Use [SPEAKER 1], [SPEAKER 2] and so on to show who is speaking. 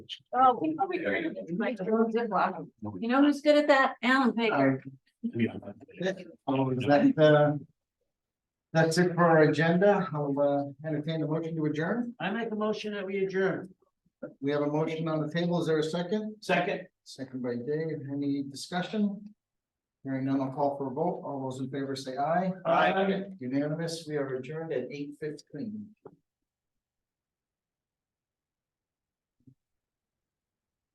[SPEAKER 1] Oh, we probably could have just made a little ziploc. You know who's good at that? Alan Baker.
[SPEAKER 2] Is that, uh, That's it for our agenda. I'll uh, entertain the motion to adjourn.
[SPEAKER 3] I make a motion that we adjourn.
[SPEAKER 2] We have a motion on the table. Is there a second?
[SPEAKER 3] Second.
[SPEAKER 2] Second by Dave. Any discussion? Hearing none, I'll call for a vote. All those in favor say aye.
[SPEAKER 3] Aye.
[SPEAKER 2] Unanimous. We are adjourned at eight fifteen.